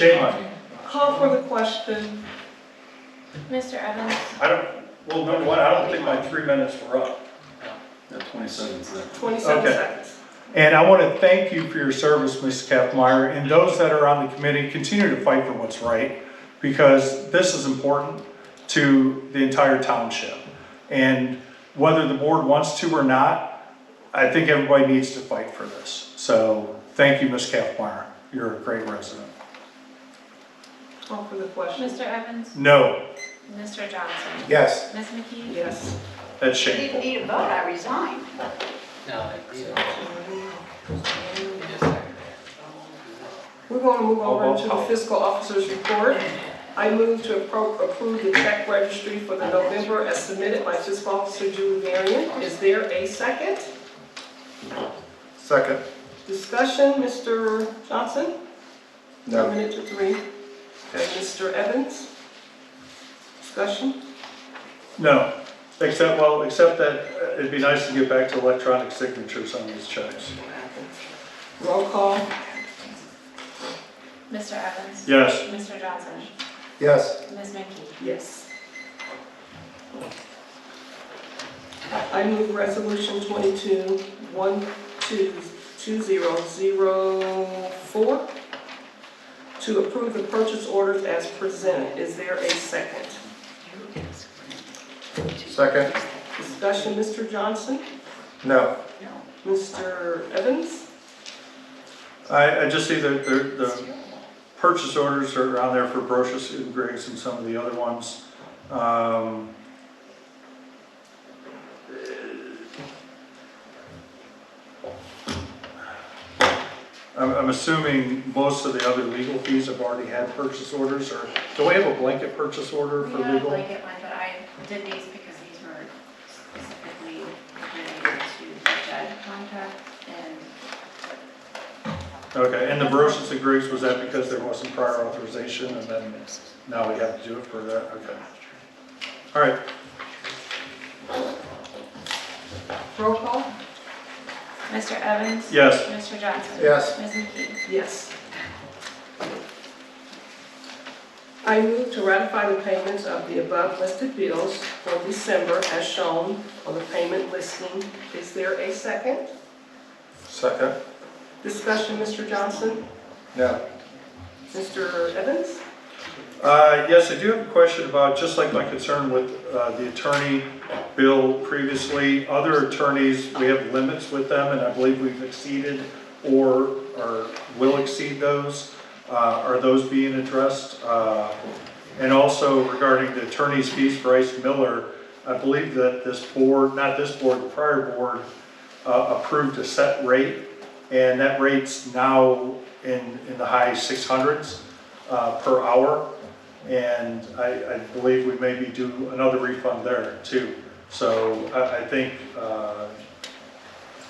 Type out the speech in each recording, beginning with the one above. Shane, Call for the question. Mr. Evans? I don't, well, number one, I don't think my three minutes were up. Yeah, twenty-seven is that. 27 Okay. seconds. And I want to thank you for your service, Ms. Kathmeyer, and those that are on the committee, continue to fight for what's right, because this is important to the entire township. And whether the board wants to or not, I think everybody needs to fight for this. So, thank you, Ms. Kathmeyer, you're a great resident. Call for the question. Mr. Evans? No, Mr. Johnson? yes, Ms. McKee? Yes. that's You didn't shameful. need a vote, I resigned. No, it- you know, it is We're going to move Oh, over to the oh, oh. fiscal officer's report. I move to appro- approve the check registry for the November as submitted by fiscal officer Julie Varian. Is there a second? Second. Discussion, Mr. Johnson? No. One minute to three. Okay, Mr. Evans? Discussion? No, except, well, except that uh, it'd be nice to get back to electronic signatures on these checks. Roll call. Mr. Evans? Yes. Mr. Johnson? Yes. Ms. McKee? Yes. I move resolution twenty-two, one, two, two zero, zero, four to approve the purchase orders as presented. Is there a second? Second? Discussion, Mr. Johnson? No. Mr. Evans? I, I just see that the, the purchase orders are on there for brochures and Graves and some of the other ones. Um, I'm, I'm assuming most of the other legal fees have already had purchase orders, or do we have a blanket purchase order for We had a legal? blanket one, but I did these because these were specifically related to the judge contract and Okay, and the brochures and Graves, was that because there wasn't prior authorization and then now we have to do it for that? Okay. All right, Roll call? Mr. Evans? yes. Mr. Johnson? Yes. Ms. McKee? Yes. I move to ratify the payments of the above listed bills for December as shown on the payment listing. Is there a second? Second? Discussion, Mr. Johnson? No. Mr. Evans? Uh, Yes, I do have a question about, just like my concern with uh, the attorney bill previously, other attorneys, we have limits with them, and I believe we've exceeded or, or will exceed those. Uh, Are those being addressed? Uh, And also regarding the attorney's fees for Ice Miller, I believe that this board, not this board, the prior board uh, approved a set rate, and that rate's now in, in the high 600s uh, per hour. And I, I believe we maybe do another refund there too. So I, I think, uh,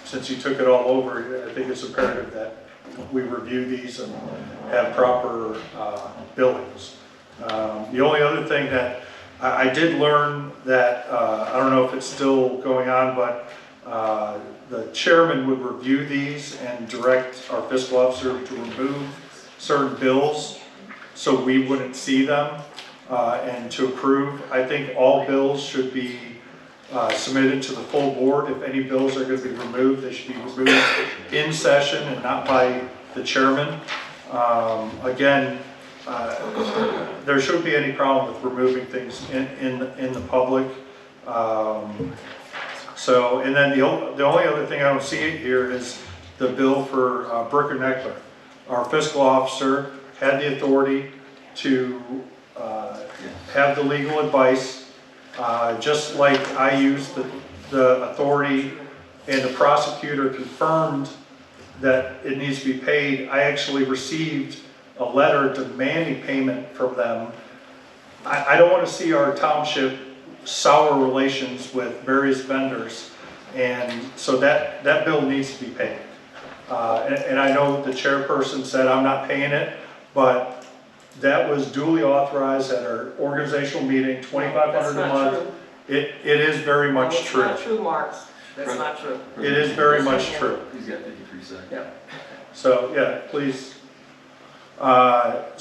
since you took it all over, I think it's imperative that we review these and have proper uh, billings. Um, The only other thing that, I, I did learn that, uh, I don't know if it's still going on, but uh, the chairman would review these and direct our fiscal officer to remove certain bills so we wouldn't see them uh, and to approve. I think all bills should be uh, submitted to the full board. If any bills are going to be removed, they should be removed in session and not by the chairman. Um, Again, uh, there shouldn't be any problem with removing things in, in, in the public. Um, So, and then the, o- the only other thing I don't see here is the bill for uh, Brooker Neckler. Our fiscal officer had the authority to uh, have the legal advice, uh, just like I used the, the authority and the prosecutor confirmed that it needs to be paid. I actually received a letter demanding payment from them. I, I don't want to see our township sour relations with various vendors. And so that, that bill needs to be paid. Uh, and, and I know the chairperson said, I'm not paying it, but that was duly authorized at our organizational meeting, twenty-five hundred a That's not month. true. It, it is very No, much true. It's not true, Mark. That's not true. It is very much true. He's got fifty-three seconds. Yeah. So, yeah, please. Uh,